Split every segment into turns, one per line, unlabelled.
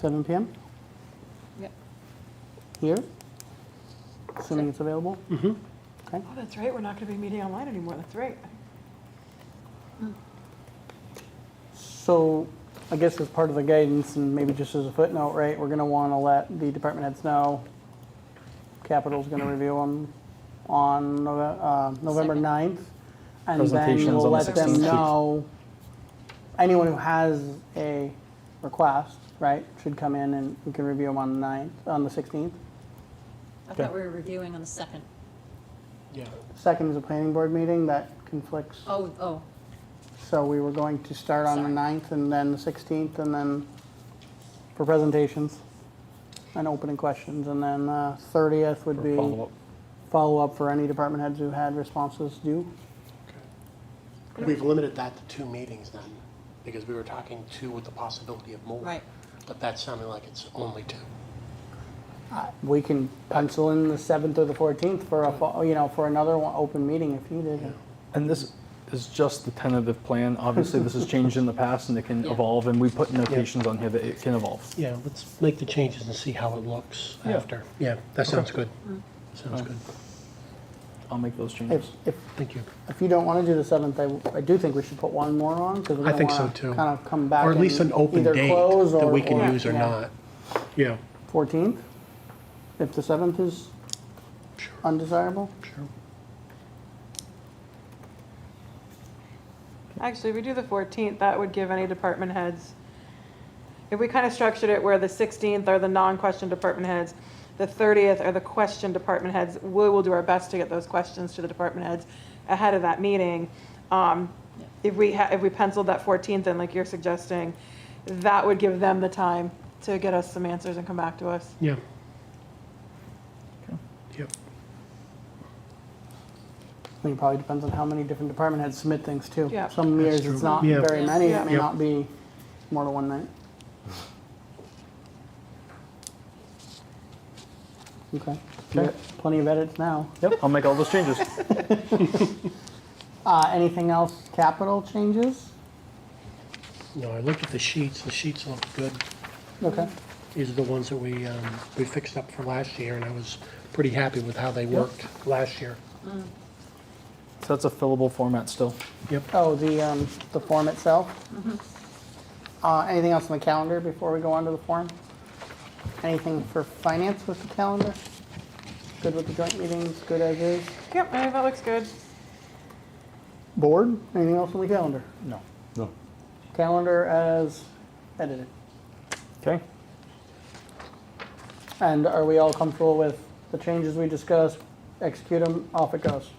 7 PM
Yep.
here, assuming it's available? Mm-hmm. Okay.
Oh, that's right, we're not gonna be meeting online anymore, that's right.
So I guess as part of the guidance and maybe just as a footnote, right, we're going to want to let the department heads know. Capitol's going to review them on Nove- uh, November
Second.
9th. And then
Presentations on
we'll
the
let them
16th.
know, anyone who has a request, right, should come in and we can review them on the 9th, on the 16th.
I thought we were reviewing on the second.
Second is a planning board meeting that conflicts.
Oh, oh,
So we were going to start on the
Sorry.
9th and then the 16th and then for presentations and opening questions. And then uh, 30th would be
follow-up.
follow-up for any department heads who had responses due.
We've limited that to two meetings then, because we were talking two with the possibility of more.
Right.
But that sounded like it's only two.
We can pencil in the 7th or the 14th for a, fo- you know, for another one- open meeting if you did.
And this is just the tentative plan. Obviously, this has changed in the past and it can
Yeah.
evolve, and we put notations on here that it can evolve.
Yeah, let's make the changes and see how it looks
Yeah.
after. Yeah, that sounds good. Sounds
Alright.
good.
I'll make those
If,
changes.
if,
Thank you.
if you don't want to do the 7th, I, w- I do think we should put one more on because we're
I
going
think
to
so
want to
too.
kind of come back.
Or at least
and
an open
either
date
close
that
or-
we can
or-
use or
yeah.
not. Yeah,
14th, if the 7th is
Sure.
undesirable?
sure.
Actually, if we do the 14th, that would give any department heads, if we kind of structured it where the 16th are the non-question department heads, the 30th are the question department heads, we will do our best to get those questions to the department heads ahead of that meeting. Um,
Yeah.
If we, ha- if we penciled that 14th in, like you're suggesting, that would give them the time to get us some answers and come back to us.
Yeah. Yep.
I mean, it probably depends on how many different department heads submit things too.
Yeah.
Some
That's
years it's
true.
not
Yeah.
very many,
Yeah.
it may
Yeah.
not be more than one night. Okay,
Yeah.
Sure. plenty of edits now.
Yep, I'll make all those changes.
Uh, anything else, capital changes?
No, I looked at the sheets. The sheets looked good.
Okay,
These are the ones that we, um, we fixed up for last year, and I was pretty happy with how they worked last year.
So that's a fillable format still.
Yep.
oh, the, um, the form itself? Uh, anything else on the calendar before we go on to the form? Anything for finance with the calendar? Good with the joint meetings, good as is?
Yep, I think that looks good.
Board, anything else on the calendar?
No.
No.
calendar as edited.
Okay.
And are we all comfortable with the changes we discussed? Execute them, off it goes.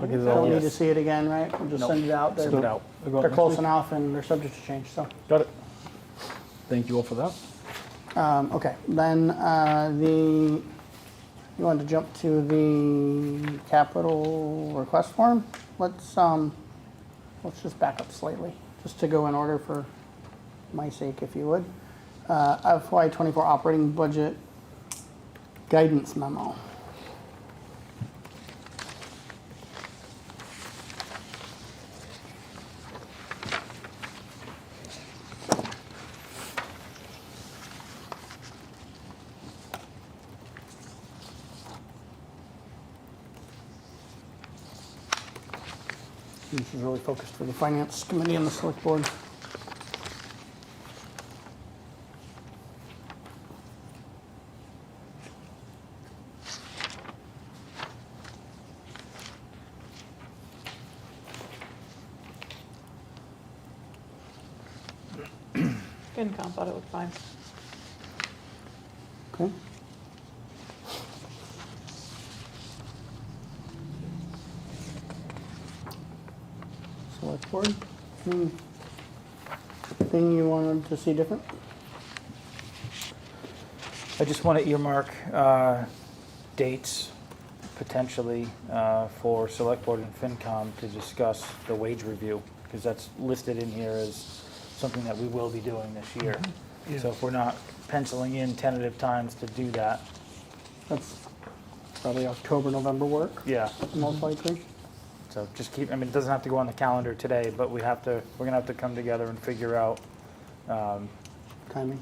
I'll give it all
Don't need to
yes.
see it again, right? We'll just
Nope.
send it out.
Send it out. We'll go out
They're
next
close
week.
enough and they're subject to change, so.
Got it. Thank you all for that.
Um, okay, then, uh, the, you want to jump to the capital request form? Let's, um, let's just back up slightly, just to go in order for my sake, if you would. Uh, FY twenty-four operating budget guidance memo. This is really focused for the finance committee and the select board.
FinCom thought it looked fine.
Okay. Select board, hmm. Thing you wanted to see different?
I just want to earmark uh, dates potentially uh, for Select Board and FinCom to discuss the wage review, because that's listed in here as something that we will be doing this year.
Mm-hmm.
So if we're not penciling in tentative times to do that,
That's probably October, November work,
yeah.
most likely.
So just keep, I mean, it doesn't have to go on the calendar today, but we have to, we're going to have to come together and figure out um,
timing.